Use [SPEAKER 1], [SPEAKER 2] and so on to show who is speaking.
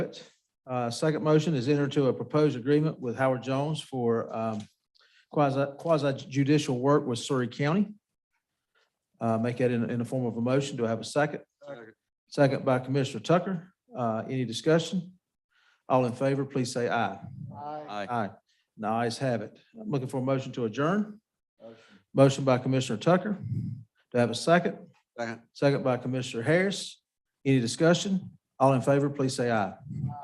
[SPEAKER 1] Uh, Second motion is enter to a proposed agreement with Howard Jones for um, quasi quasi judicial work with Surrey County. Uh, Make that in, in the form of a motion. Do I have a second? Second by Commissioner Tucker. Uh, Any discussion? All in favor, please say aye.
[SPEAKER 2] Aye.
[SPEAKER 1] Aye. The ayes have it. I'm looking for a motion to adjourn. Motion by Commissioner Tucker. Do I have a second?
[SPEAKER 2] Second.
[SPEAKER 1] Second by Commissioner Harris. Any discussion? All in favor, please say aye.